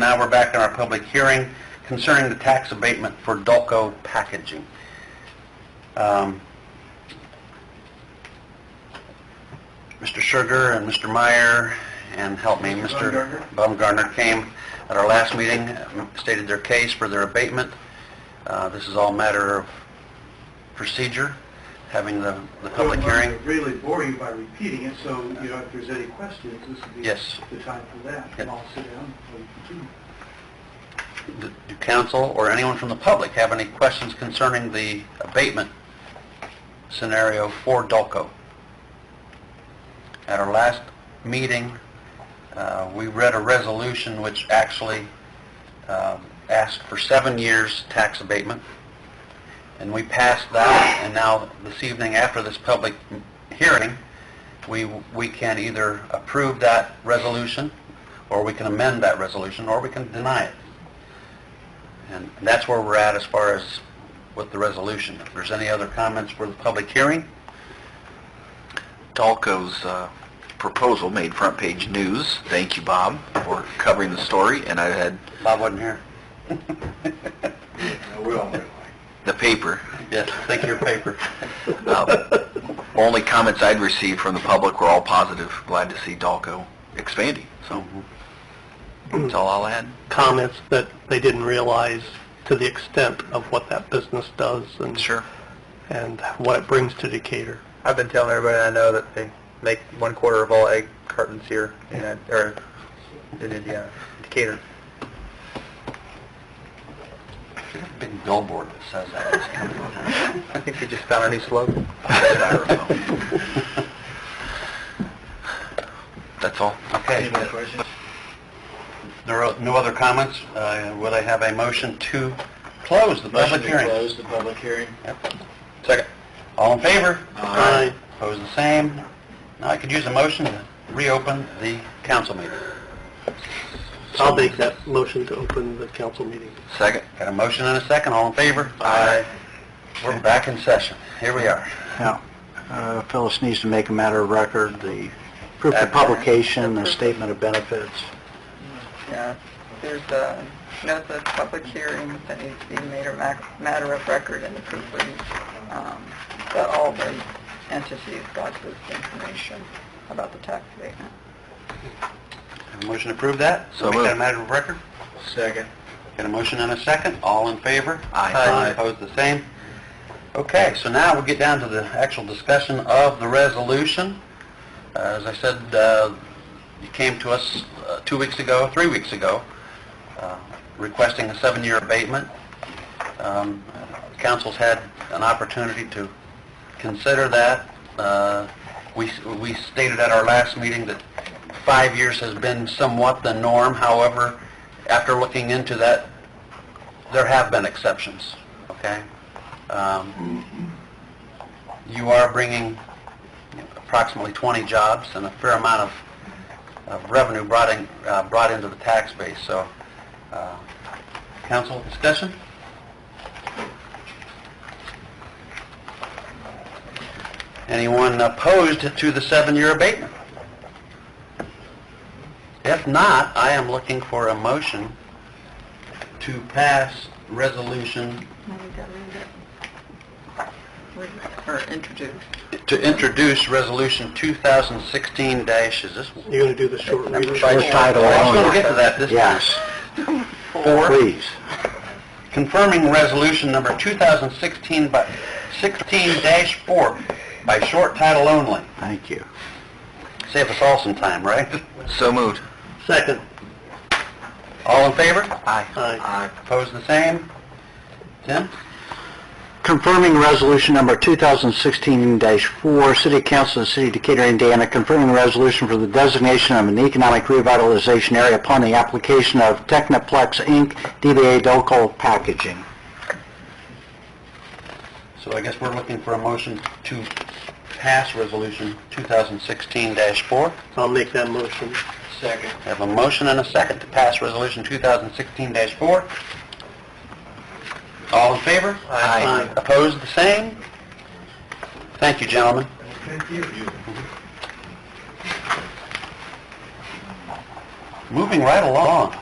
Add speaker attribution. Speaker 1: Now we're back in our public hearing concerning the tax abatement for Dulco Packaging. Um, Mr. Sugar and Mr. Meyer, and help me, Mr. Baumgartner came at our last meeting, stated their case for their abatement. Uh, This is all matter of procedure, having the the public hearing.
Speaker 2: don't want to really bore you by repeating it, so, you know, if there's any questions, this would be
Speaker 1: Yes.
Speaker 2: the time for that.
Speaker 1: Yeah.
Speaker 2: And I'll sit down and continue.
Speaker 1: Do do council or anyone from the public have any questions concerning the abatement scenario for Dulco? At our last meeting, uh, we read a resolution which actually um, asked for seven years tax abatement, and we passed that, and now this evening, after this public hearing, we, we can either approve that resolution, or we can amend that resolution, or we can deny it. And that's where we're at as far as with the resolution. If there's any other comments for the public hearing?
Speaker 3: Dalco's uh, proposal made front page news. Thank you, Bob, for covering the story. And I had
Speaker 1: Bob wasn't here.
Speaker 3: the paper.
Speaker 1: Yes, thank you, your paper.
Speaker 3: Uh, only comments I'd received from the public were all positive. Glad to see Dalco expanding. So
Speaker 1: Mm-hmm.
Speaker 3: that's all I'll add.
Speaker 4: comments that they didn't realize to the extent of what that business does and
Speaker 3: Sure.
Speaker 4: and what it brings to Decatur.
Speaker 5: I've been telling everybody I know that they make one quarter of all egg cartons here in, that- or in Indiana, Decatur.
Speaker 1: Big billboard that says that.
Speaker 5: I think we just found a new slogan.
Speaker 3: That's all.
Speaker 1: Okay,
Speaker 2: questions?
Speaker 1: there are no other comments. Uh, Would I have a motion to close the public hearing?
Speaker 2: the public hearing.
Speaker 1: Second. All in favor?
Speaker 4: Aye.
Speaker 1: Opposed, the same. Now, I could use a motion to reopen the council meeting.
Speaker 4: I'll make that motion to open the council meeting.
Speaker 3: Second.
Speaker 1: Got a motion and a second, all in favor? Aye. We're back in session. Here we are.
Speaker 6: Now, uh, Phyllis needs to make a matter of record, the proof
Speaker 1: Uh,
Speaker 6: of publication, the statement of benefits.
Speaker 7: Yeah, there's a notice of public hearing that needs to be made or mac- matter of record in the proofread, um, that all the entities got this information about the tax abatement.
Speaker 1: Have a motion to approve that?
Speaker 3: So
Speaker 1: Make that a
Speaker 3: moved.
Speaker 1: matter of record?
Speaker 5: Second.
Speaker 1: Got a motion and a second, all in favor?
Speaker 3: Aye.
Speaker 1: Opposed, the same? Okay, so now we get down to the actual discussion of the resolution. Uh, As I said, uh, it came to us uh, two weeks ago, three weeks ago, uh, requesting a seven-year abatement. Um, Council's had an opportunity to consider that. Uh, We we stated at our last meeting that five years has been somewhat the norm, however, after looking into that, there have been exceptions, okay? Um, You are bringing approximately 20 jobs and a fair amount of of revenue brought in, uh, brought into the tax base, so, uh, council discussion? Anyone opposed to the seven-year abatement? If not, I am looking for a motion to pass resolution
Speaker 7: I need to read it. Read it, Or introduce.
Speaker 1: to introduce Resolution 2016 dash, is this?
Speaker 4: You're going to do the short reading.
Speaker 6: By title
Speaker 1: I was gonna
Speaker 6: only.
Speaker 1: get to that this time.
Speaker 6: Yes,
Speaker 1: Four,
Speaker 6: please.
Speaker 1: confirming Resolution Number 2016 by, 16 dash 4 by short title only.
Speaker 6: Thank you.
Speaker 1: Save us all some time, right?
Speaker 3: So moved.
Speaker 4: Second.
Speaker 1: All in favor?
Speaker 4: Aye.
Speaker 1: Opposed, the same? Tim?
Speaker 6: Confirming Resolution Number 2016-4, City Council of the City of Decatur, Indiana, confirming resolution for the designation of an economic revitalization area upon the application of Technoplex, Inc., DBA Docal Packaging.
Speaker 1: So I guess we're looking for a motion to pass Resolution 2016 dash 4.
Speaker 4: I'll make that motion.
Speaker 1: Second. I have a motion and a second to pass Resolution 2016-4. All in favor?
Speaker 4: Aye.
Speaker 1: Opposed, the same? Thank you, gentlemen.
Speaker 2: Thank you.
Speaker 1: Moving right along.